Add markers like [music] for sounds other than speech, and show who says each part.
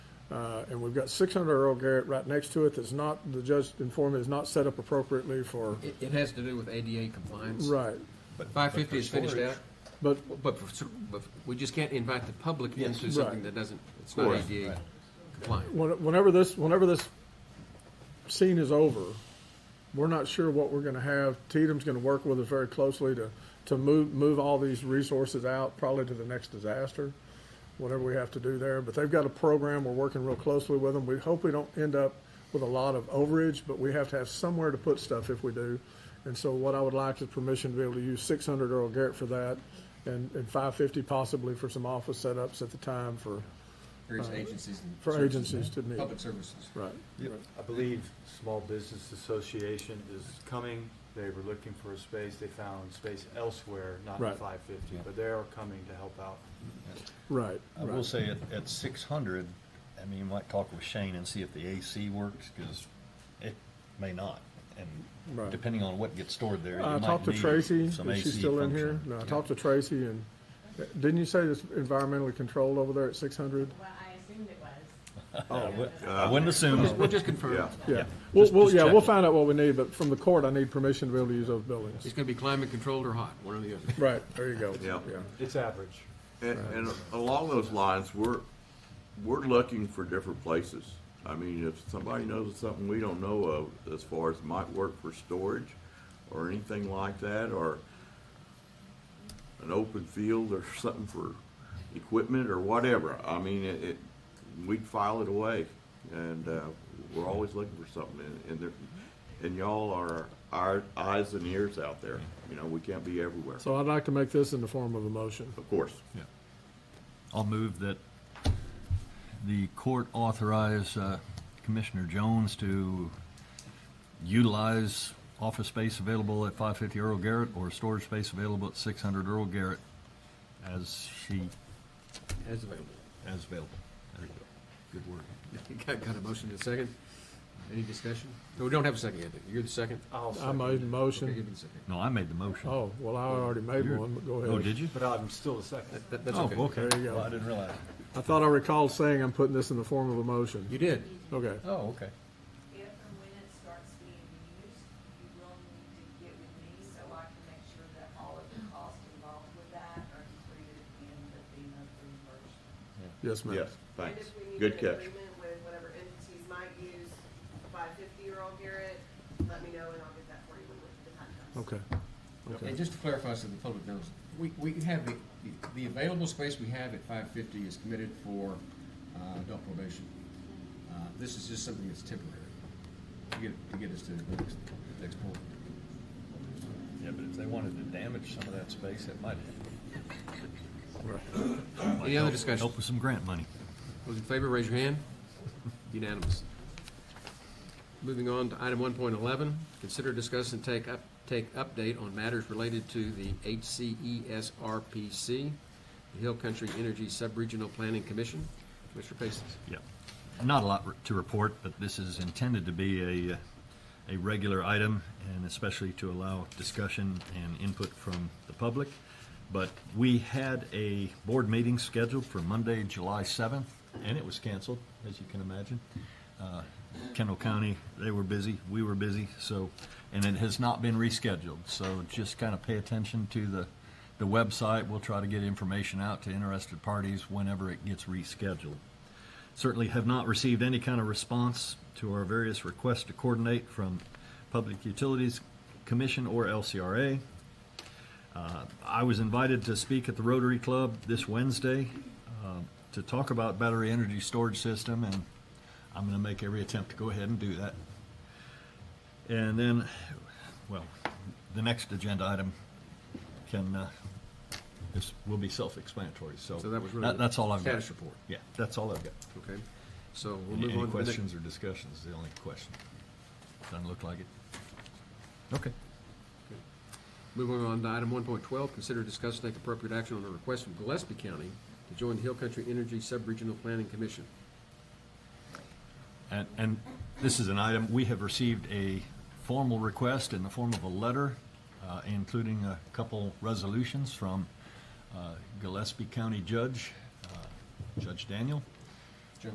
Speaker 1: Uh, and we've got six hundred Earl Garrett right next to it that's not, the judge informed me is not set up appropriately for,
Speaker 2: It, it has to do with ADA compliance.
Speaker 1: right.
Speaker 2: Five fifty is finished out,
Speaker 1: But,
Speaker 2: but, for- but we just can't invite the public into something
Speaker 1: Right.
Speaker 2: that doesn't, it's not
Speaker 3: Correct.
Speaker 2: ADA compliant.
Speaker 1: When- Whenever this, whenever this scene is over, we're not sure what we're gonna have. Tatum's gonna work with us very closely to, to move, move all these resources out, probably to the next disaster, whatever we have to do there. But they've got a program, we're working real closely with them. We hope we don't end up with a lot of overage, but we have to have somewhere to put stuff if we do. And so what I would like is permission to be able to use six hundred Earl Garrett for that, and, and five fifty possibly for some office setups at the time for,
Speaker 2: Various agencies and.
Speaker 1: for
Speaker 2: services,
Speaker 1: agencies to meet.
Speaker 2: Public services.
Speaker 1: Right.
Speaker 4: I believe Small Business Association is coming. They were looking for a space. They found space elsewhere, not
Speaker 1: Right.
Speaker 4: at five fifty, but they are coming to help out.
Speaker 1: Right.
Speaker 3: I will
Speaker 1: right.
Speaker 3: say at, at six hundred, I mean, you might talk with Shane and see if the AC works, because it may not.
Speaker 1: Right.
Speaker 3: And depending on what gets stored there, you
Speaker 1: I
Speaker 3: might
Speaker 1: talked to
Speaker 3: need
Speaker 1: Tracy. Is
Speaker 3: some
Speaker 1: she
Speaker 3: AC
Speaker 1: still in here?
Speaker 3: function.
Speaker 1: No, I talked to Tracy and, uh, didn't you say it's environmentally controlled over there at six hundred?
Speaker 5: Well, I assumed it was.
Speaker 3: I wou- I wouldn't assume,
Speaker 1: [laughs]
Speaker 2: We'll just confirm,
Speaker 1: Yeah. We'll,
Speaker 3: Just-
Speaker 1: we'll,
Speaker 3: just
Speaker 1: yeah, we'll
Speaker 3: checking.
Speaker 1: find out what we need, but from the court, I need permission to be able to use those buildings.
Speaker 2: it's gonna be climate controlled or hot, one or the other.
Speaker 1: Right, there you go.
Speaker 6: Yeah.
Speaker 4: It's average.
Speaker 6: And, and along those lines, we're, we're looking for different places. I mean, if somebody knows something we don't know of as far as might work for storage or anything like that, or an open field or [laughs] something for equipment or whatever, I mean, it, it, we'd file it away. And, uh, we're always looking for something and, and there, and y'all are our eyes and ears out there. You know, we can't be everywhere,
Speaker 1: So I'd like to make this in the form of a motion.
Speaker 6: of course.
Speaker 3: Yeah. I'll move that the court authorize uh, Commissioner Jones to utilize office space available at five fifty Earl Garrett or storage space available at six hundred Earl Garrett as she,
Speaker 2: As available. [laughs]
Speaker 3: as available. There you go. Good word.
Speaker 2: Got, got a motion in a second? Any discussion? No, we don't have a second yet. You're the second?
Speaker 4: I'll
Speaker 1: I
Speaker 4: second,
Speaker 1: made a
Speaker 2: Okay, give
Speaker 1: motion.
Speaker 2: me the second.
Speaker 3: No, I made the motion.
Speaker 1: Oh, well, I already made
Speaker 3: You're-
Speaker 1: one, but go ahead.
Speaker 3: Oh, did you?
Speaker 4: but I'm still a second.
Speaker 2: That, that's
Speaker 3: Oh,
Speaker 2: okay.
Speaker 3: okay.
Speaker 1: There you go.
Speaker 3: Well, I didn't realize.
Speaker 1: I thought I recalled saying I'm putting this in the form of a motion.
Speaker 2: You did.
Speaker 1: Okay.
Speaker 3: Oh, okay.
Speaker 5: If and when it starts being used, you will need to get with me so I can make sure that all of the costs involved with that are included in the FEMA reimbursement.
Speaker 1: Yes, ma'am.
Speaker 6: Yes,
Speaker 5: And
Speaker 6: thanks.
Speaker 5: if we need
Speaker 6: Good
Speaker 5: an
Speaker 6: catch.
Speaker 5: Agreement with whatever entities might use five fifty-year-old Garrett, let me know and I'll get that for you when the time comes.
Speaker 1: Okay.
Speaker 2: And just to clarify so the public knows, we, we have the, the- the available space we have at five fifty is committed for, uh, adult probation. Uh, This is just something that's temporary to get, to get us to the next, the next point.
Speaker 3: Yeah, but if they wanted to damage some of that space, it might.
Speaker 2: Any other discussion?
Speaker 3: Help with some grant money.
Speaker 2: Those in favor, raise your hand. Unanimous. Moving on to item one point eleven, consider, discuss, and take up, take update on matters related to the E HCESRPC, the Hill Country Energy Subregional Planning Commission. Commissioner Paces.
Speaker 3: Yeah. Not a lot re- to report, but this is intended to be a, uh, a regular item, and especially to allow discussion and input from the public. But we had a board meeting scheduled for Monday, July 7th, and it was canceled, as you can imagine. Uh, Kendall County, they were busy, we were busy, so, and it has not been rescheduled. So just kind of pay attention to the, the website. We'll try to get information out to interested parties whenever it gets rescheduled certainly have not received any kind of response to our various requests to coordinate from Public Utilities Commission or LCRA. Uh, I was invited to speak at the Rotary Club this Wednesday uh, to talk about battery energy storage system, and I'm going to make every attempt to go ahead and do that. And then, well, the next agenda item can, uh, is, will be self-explanatory, so.
Speaker 2: So that was really
Speaker 3: That, that's all I've got.
Speaker 2: status report.
Speaker 3: Yeah, that's all I've got.
Speaker 2: Okay, so we'll
Speaker 3: Any
Speaker 2: move
Speaker 3: any
Speaker 2: on to the next.
Speaker 3: questions or discussions is the only question. Doesn't look like it. Okay.
Speaker 2: Moving on to item one point twelve, consider discuss and take appropriate action on a request from Gillespie County to join the Hill Country Energy Subregional Planning Commission.
Speaker 3: And, and this is an item, we have received a formal request in the form of a letter, uh, including a couple resolutions from uh, Gillespie County Judge, uh, Judge Daniel.